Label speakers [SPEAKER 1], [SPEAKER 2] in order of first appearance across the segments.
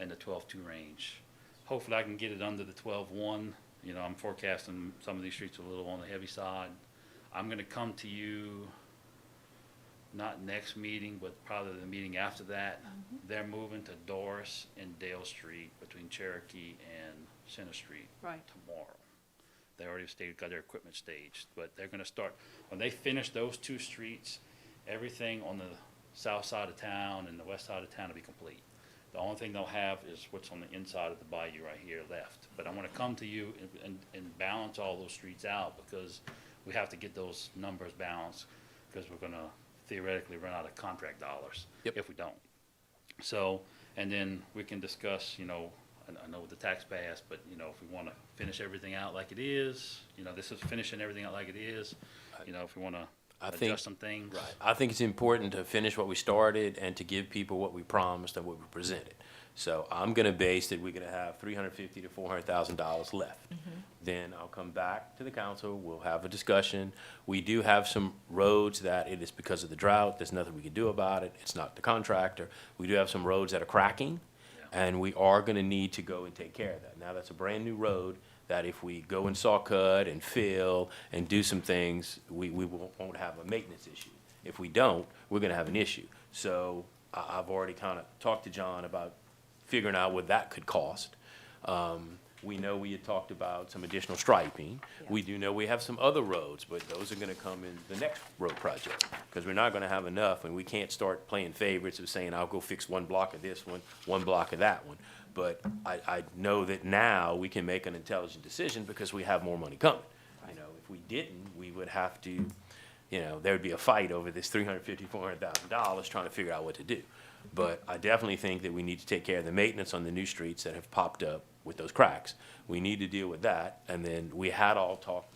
[SPEAKER 1] in the twelve-two range. Hopefully I can get it under the twelve-one, you know, I'm forecasting some of these streets a little on the heavy side. I'm gonna come to you, not next meeting, but probably the meeting after that. They're moving to Doris and Dale Street between Cherokee and Center Street
[SPEAKER 2] Right.
[SPEAKER 1] tomorrow. They already staged, got their equipment staged, but they're gonna start, when they finish those two streets, everything on the south side of town and the west side of town will be complete. The only thing they'll have is what's on the inside of the bayou right here left. But I wanna come to you and, and, and balance all those streets out, because we have to get those numbers balanced, because we're gonna theoretically run out of contract dollars.
[SPEAKER 3] Yep.
[SPEAKER 1] If we don't. So, and then we can discuss, you know, I, I know the tax pass, but, you know, if we wanna finish everything out like it is, you know, this is finishing everything out like it is, you know, if we wanna
[SPEAKER 3] I think-
[SPEAKER 1] adjust some things.
[SPEAKER 3] Right. I think it's important to finish what we started and to give people what we promised and what we presented. So I'm gonna base that we're gonna have three hundred fifty to four hundred thousand dollars left. Then I'll come back to the council, we'll have a discussion. We do have some roads that it is because of the drought, there's nothing we can do about it, it's not the contractor. We do have some roads that are cracking, and we are gonna need to go and take care of that. Now, that's a brand-new road that if we go and saw cut and fill and do some things, we, we won't, won't have a maintenance issue. If we don't, we're gonna have an issue. So I, I've already kinda talked to John about figuring out what that could cost. Um, we know we had talked about some additional striping. We do know we have some other roads, but those are gonna come in the next road project. Cause we're not gonna have enough and we can't start playing favorites of saying, I'll go fix one block of this one, one block of that one. But I, I know that now we can make an intelligent decision because we have more money coming. You know, if we didn't, we would have to, you know, there would be a fight over this three hundred fifty, four hundred thousand dollars trying to figure out what to do. But I definitely think that we need to take care of the maintenance on the new streets that have popped up with those cracks. We need to deal with that, and then we had all talked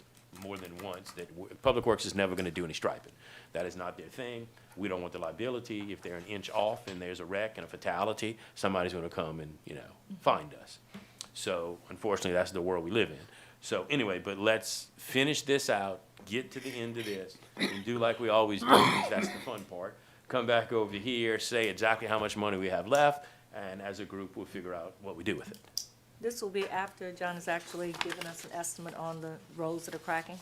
[SPEAKER 3] more than once that w- Public Works is never gonna do any striping. That is not their thing. We don't want the liability. If they're an inch off and there's a wreck and a fatality, somebody's gonna come and, you know, find us. So unfortunately, that's the world we live in. So anyway, but let's finish this out, get to the end of this, and do like we always do, 'cause that's the fun part. Come back over here, say exactly how much money we have left, and as a group, we'll figure out what we do with it.
[SPEAKER 2] This will be after John has actually given us an estimate on the roads that are cracking?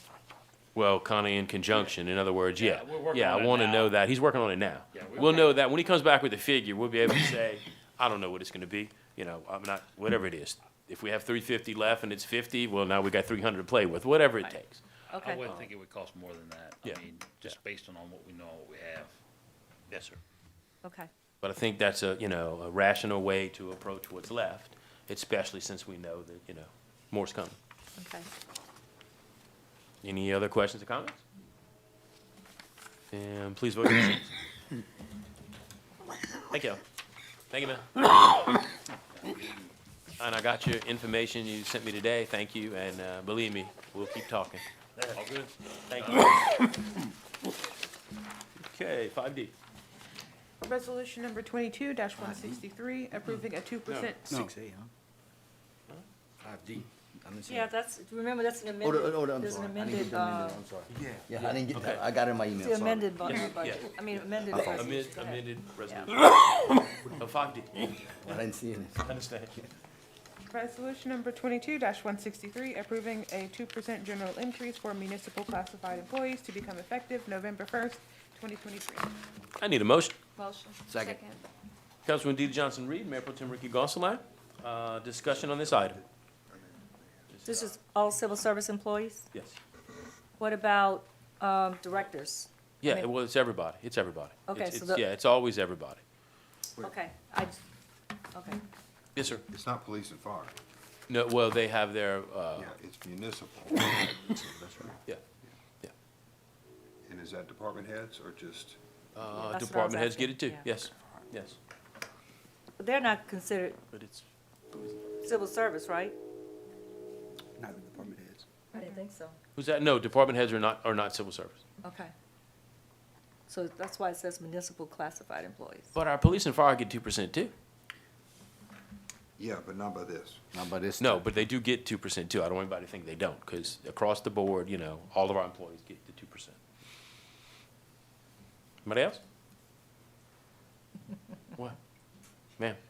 [SPEAKER 3] Well, kind of in conjunction, in other words, yeah.
[SPEAKER 1] Yeah, we're working
[SPEAKER 3] Yeah,
[SPEAKER 1] on
[SPEAKER 3] I
[SPEAKER 1] it
[SPEAKER 3] want to
[SPEAKER 1] now.
[SPEAKER 3] know that. He's working on it now.
[SPEAKER 1] Yeah, we-
[SPEAKER 3] We'll know that, when he comes back with a figure, we'll be able to say, I don't know what it's going to be, you know, I'm not, whatever it is. If we have three fifty left and it's fifty, well, now we got three hundred to play with, whatever it takes.
[SPEAKER 1] I
[SPEAKER 2] Okay.
[SPEAKER 1] wouldn't think it would cost more than that.
[SPEAKER 3] Yeah.
[SPEAKER 1] I mean, just based on what we know, what we have. Yes, sir.
[SPEAKER 2] Okay,
[SPEAKER 3] But I think that's a, you know, a rational way to approach what's left, especially since we know that, you know, more's coming.
[SPEAKER 2] okay.
[SPEAKER 3] Any other questions or comments? And please vote your machines. Thank you. Thank you, man. And I got your information you sent me today. Thank you, and, uh, believe me, we'll keep talking. All good? Thank you. Okay, five D.
[SPEAKER 4] Resolution number twenty-two one sixty-three, approving a two percent.
[SPEAKER 5] Six A, huh? Five D. I didn't see
[SPEAKER 2] Yeah,
[SPEAKER 5] it.
[SPEAKER 2] that's, remember, that's an
[SPEAKER 5] Oh,
[SPEAKER 2] amended,
[SPEAKER 5] the- oh, the- I'm
[SPEAKER 2] there's an
[SPEAKER 5] sorry. I didn't get
[SPEAKER 2] amended,
[SPEAKER 5] the
[SPEAKER 2] uh,
[SPEAKER 5] amended, I'm sorry. Yeah. Yeah, I didn't get that. I got it in my email,
[SPEAKER 2] the
[SPEAKER 5] sorry.
[SPEAKER 2] amended bu- uh,
[SPEAKER 3] Yes,
[SPEAKER 2] budget,
[SPEAKER 3] yes,
[SPEAKER 2] I mean, amended
[SPEAKER 5] Okay.
[SPEAKER 2] resolution.
[SPEAKER 3] Amend,
[SPEAKER 2] Go ahead.
[SPEAKER 3] amended resolution.
[SPEAKER 2] Yeah.
[SPEAKER 3] Oh, five D.
[SPEAKER 5] I didn't see it.
[SPEAKER 3] Understand.
[SPEAKER 4] Resolution number twenty-two one sixty-three, approving a two percent general increase for municipal classified employees to become effective November first, twenty twenty-three.
[SPEAKER 3] I need a motion.
[SPEAKER 2] Motion.
[SPEAKER 5] Second.
[SPEAKER 3] Councilman DeeDee Johnson-Reed, Mayor Pro Tem Ricky Gonsalas, uh, discussion on this item.
[SPEAKER 2] This is all civil service employees?
[SPEAKER 3] Yes.
[SPEAKER 2] What about, um, directors?
[SPEAKER 3] Yeah, it- well, it's everybody. It's everybody.
[SPEAKER 2] Okay,
[SPEAKER 3] It's-
[SPEAKER 2] so
[SPEAKER 3] it's-
[SPEAKER 2] the-
[SPEAKER 3] Yeah, it's always everybody.
[SPEAKER 2] Okay, I, just- okay,
[SPEAKER 3] Yes, sir.
[SPEAKER 6] It's not police and fire.
[SPEAKER 3] No, well, they have their, uh,
[SPEAKER 6] Yeah, it's municipal.
[SPEAKER 3] yeah,
[SPEAKER 6] And is that department heads or just,
[SPEAKER 3] uh,
[SPEAKER 2] That's what I was
[SPEAKER 3] department heads
[SPEAKER 2] asking,
[SPEAKER 3] get it too.
[SPEAKER 2] yeah.
[SPEAKER 3] Yes, yes.
[SPEAKER 2] they're not considered
[SPEAKER 3] But it's,
[SPEAKER 2] civil service, right?
[SPEAKER 5] Not the department heads.
[SPEAKER 2] I didn't think so.
[SPEAKER 3] who's that? No, department heads are not, are not civil service.
[SPEAKER 2] Okay. So that's why it says municipal classified employees.
[SPEAKER 3] But our police and fire get two percent too.
[SPEAKER 6] yeah, but not by this.
[SPEAKER 5] Not by this.
[SPEAKER 3] No, but they do get two percent too. I don't want anybody to think they don't, because across the board, you know, all of our employees get the two percent. Anybody else? What? Ma'am?